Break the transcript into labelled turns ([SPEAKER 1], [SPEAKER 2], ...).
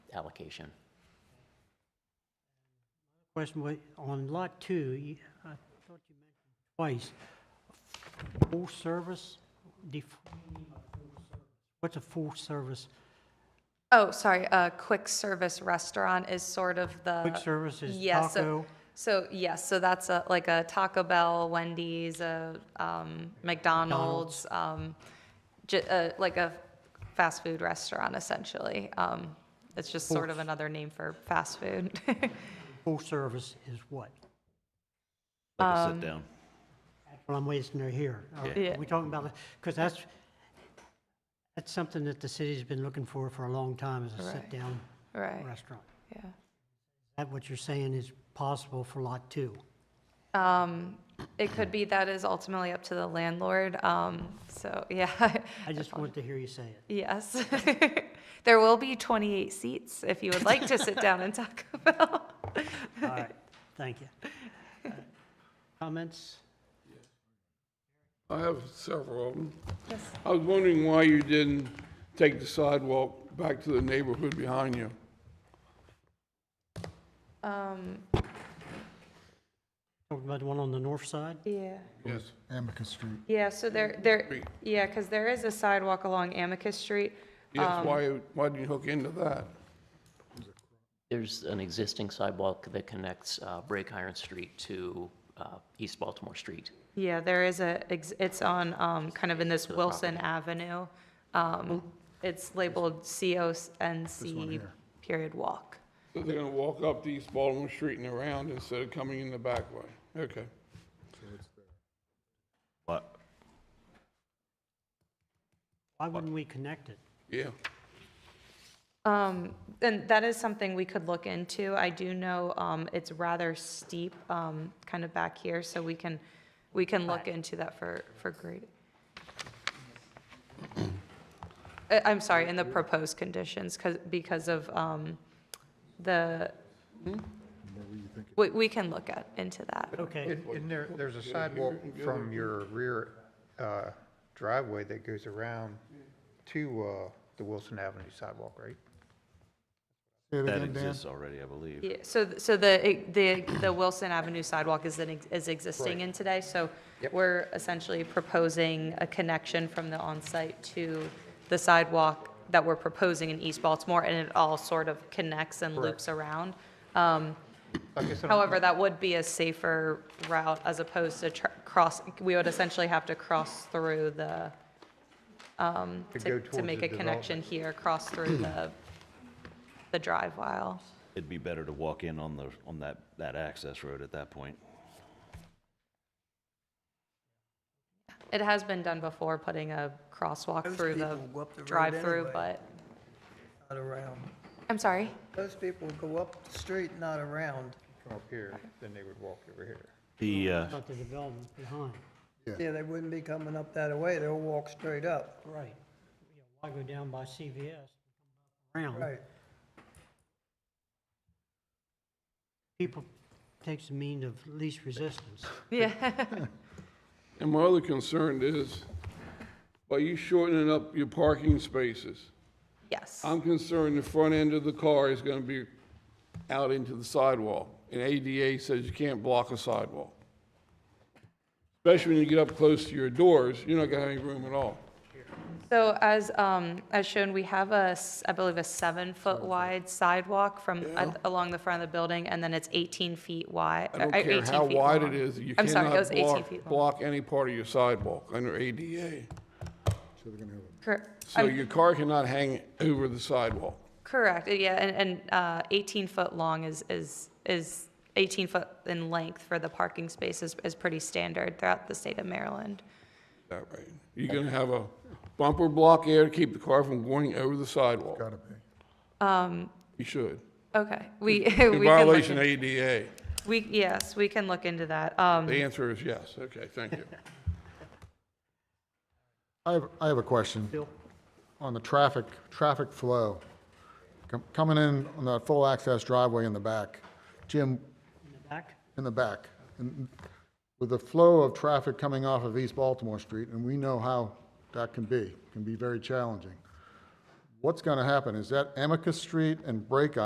[SPEAKER 1] application.
[SPEAKER 2] Question, wa- on Lot 2, you- I thought you mentioned twice, full service, def- what's a full service?
[SPEAKER 3] Oh, sorry, a quick service restaurant is sort of the.
[SPEAKER 2] Quick service is
[SPEAKER 3] Uh, Yeah, so-
[SPEAKER 2] taco,
[SPEAKER 3] So, yes, so that's a, like a Taco Bell, Wendy's, a um, McDonald's, um, ju- uh, like a fast food restaurant essentially. Um, It's just sort of another name for fast food.
[SPEAKER 2] full service is what?
[SPEAKER 4] Like a sit down.
[SPEAKER 2] Well, I'm wasting her here. Are
[SPEAKER 3] Yeah.
[SPEAKER 2] are we talking about, because that's, that's something that the city's been looking for for a long time, is a
[SPEAKER 3] Right.
[SPEAKER 2] sit-down
[SPEAKER 3] Right,
[SPEAKER 2] restaurant.
[SPEAKER 3] yeah.
[SPEAKER 2] Is that what you're saying is possible for Lot 2?
[SPEAKER 3] Um, It could be that is ultimately up to the landlord, um, so, yeah.
[SPEAKER 2] I just want to hear you say it.
[SPEAKER 3] Yes. There will be 28 seats if you would like to sit down and Taco Bell.
[SPEAKER 2] All right, thank you. Uh, Comments?
[SPEAKER 5] I have several of them. I was wondering why you didn't take the sidewalk back to the neighborhood behind you.
[SPEAKER 3] Um,
[SPEAKER 2] Talking about the one on the north side?
[SPEAKER 3] Yeah.
[SPEAKER 5] Yes.
[SPEAKER 6] Amicus Street.
[SPEAKER 3] Yeah, so there, there,
[SPEAKER 5] Street.
[SPEAKER 3] yeah, because there is a sidewalk along Amicus Street.
[SPEAKER 5] Yes, why, why didn't you hook into that?
[SPEAKER 1] There's an existing sidewalk that connects uh, Brake Iron Street to uh, East Baltimore Street.
[SPEAKER 3] Yeah, there is a, ex- it's on, um, kind of in this Wilson Avenue. Um, It's labeled CONC period walk.
[SPEAKER 5] So they're gonna walk up to East Baltimore Street and around instead of coming in the back way? Okay.
[SPEAKER 4] What?
[SPEAKER 2] Why wouldn't we connect it?
[SPEAKER 5] Yeah.
[SPEAKER 3] Um, and that is something we could look into. I do know, um, it's rather steep, um, kind of back here, so we can, we can look into that for, for grading. Uh, I'm sorry, in the proposed conditions, because, because of, um, the, we, we can look at, into that.
[SPEAKER 2] Okay,
[SPEAKER 7] And and there, there's a sidewalk from your rear uh, driveway that goes around to uh, the Wilson Avenue sidewalk, right?
[SPEAKER 6] Say it
[SPEAKER 4] That
[SPEAKER 6] again, Dan.
[SPEAKER 4] exists already, I believe.
[SPEAKER 3] Yeah, so, th- so the, the, the Wilson Avenue sidewalk is, an ex- is existing in today, so we're essentially proposing a connection from the onsite to the sidewalk that we're proposing in East Baltimore, and it all sort of connects and loops around. Um,
[SPEAKER 7] I guess I don't-
[SPEAKER 3] However, that would be a safer route as opposed to tr- cross, we would essentially have to cross through the, um,
[SPEAKER 7] To
[SPEAKER 3] to,
[SPEAKER 7] go
[SPEAKER 3] to make a
[SPEAKER 7] towards the
[SPEAKER 3] connection here, cross through the, the drive aisle.
[SPEAKER 4] It'd be better to walk in on the, on that, that access road at that point.
[SPEAKER 3] It has been done before, putting a crosswalk
[SPEAKER 8] Most
[SPEAKER 3] through the
[SPEAKER 8] people go up the road
[SPEAKER 3] drive-through,
[SPEAKER 8] anyway.
[SPEAKER 3] but,
[SPEAKER 8] Not around.
[SPEAKER 3] I'm sorry.
[SPEAKER 8] Most people go up the street, not around.
[SPEAKER 7] Come up here, then they would walk over here.
[SPEAKER 4] The, uh,
[SPEAKER 2] about the development behind.
[SPEAKER 8] Yeah, they wouldn't be coming up that way, they'll walk straight up.
[SPEAKER 2] Right. Yeah, Why go down by CVS? Round.
[SPEAKER 8] Right.
[SPEAKER 2] People takes the mean of least resistance.
[SPEAKER 3] Yeah.
[SPEAKER 5] And my other concern is, by you shortening up your parking spaces,
[SPEAKER 3] Yes.
[SPEAKER 5] I'm concerned the front end of the car is gonna be out into the sidewalk. And ADA says you can't block a sidewalk. Especially when you get up close to your doors, you're not gonna have any room at all.
[SPEAKER 3] So as, um, as shown, we have a, s- I believe, a seven-foot wide sidewalk from, at- along the front of the building, and then it's 18 feet wide.
[SPEAKER 5] I don't
[SPEAKER 3] or 18
[SPEAKER 5] care how
[SPEAKER 3] feet
[SPEAKER 5] wide it
[SPEAKER 3] long.
[SPEAKER 5] is, you
[SPEAKER 3] I'm sorry, it
[SPEAKER 5] cannot
[SPEAKER 3] was 18 feet
[SPEAKER 5] block,
[SPEAKER 3] long.
[SPEAKER 5] block any part of your sidewalk under ADA.
[SPEAKER 3] Cor-
[SPEAKER 5] So your car cannot hang over the sidewalk.
[SPEAKER 3] Correct, yeah, and, and uh, 18 foot long is, is, is 18 foot in length for the parking space is, is pretty standard throughout the state of Maryland.
[SPEAKER 5] That right. You're gonna have a bumper block there to keep the car from going over the sidewalk.
[SPEAKER 6] Gotta be.
[SPEAKER 5] You should.
[SPEAKER 3] Okay, we. we
[SPEAKER 5] In
[SPEAKER 3] can look
[SPEAKER 5] violation
[SPEAKER 3] into-
[SPEAKER 5] of ADA.
[SPEAKER 3] We, yes, we can look into that. Um,
[SPEAKER 5] The answer is yes. Okay, thank you.
[SPEAKER 6] I have, I have a question. On the traffic, traffic flow, Com- coming in on that full access driveway in the back, Jim,
[SPEAKER 2] In the back?
[SPEAKER 6] in the back, and with the flow of traffic coming off of East Baltimore Street, and we know how that can be, can be very challenging. What's going to happen? Is that Amicus Street and Brake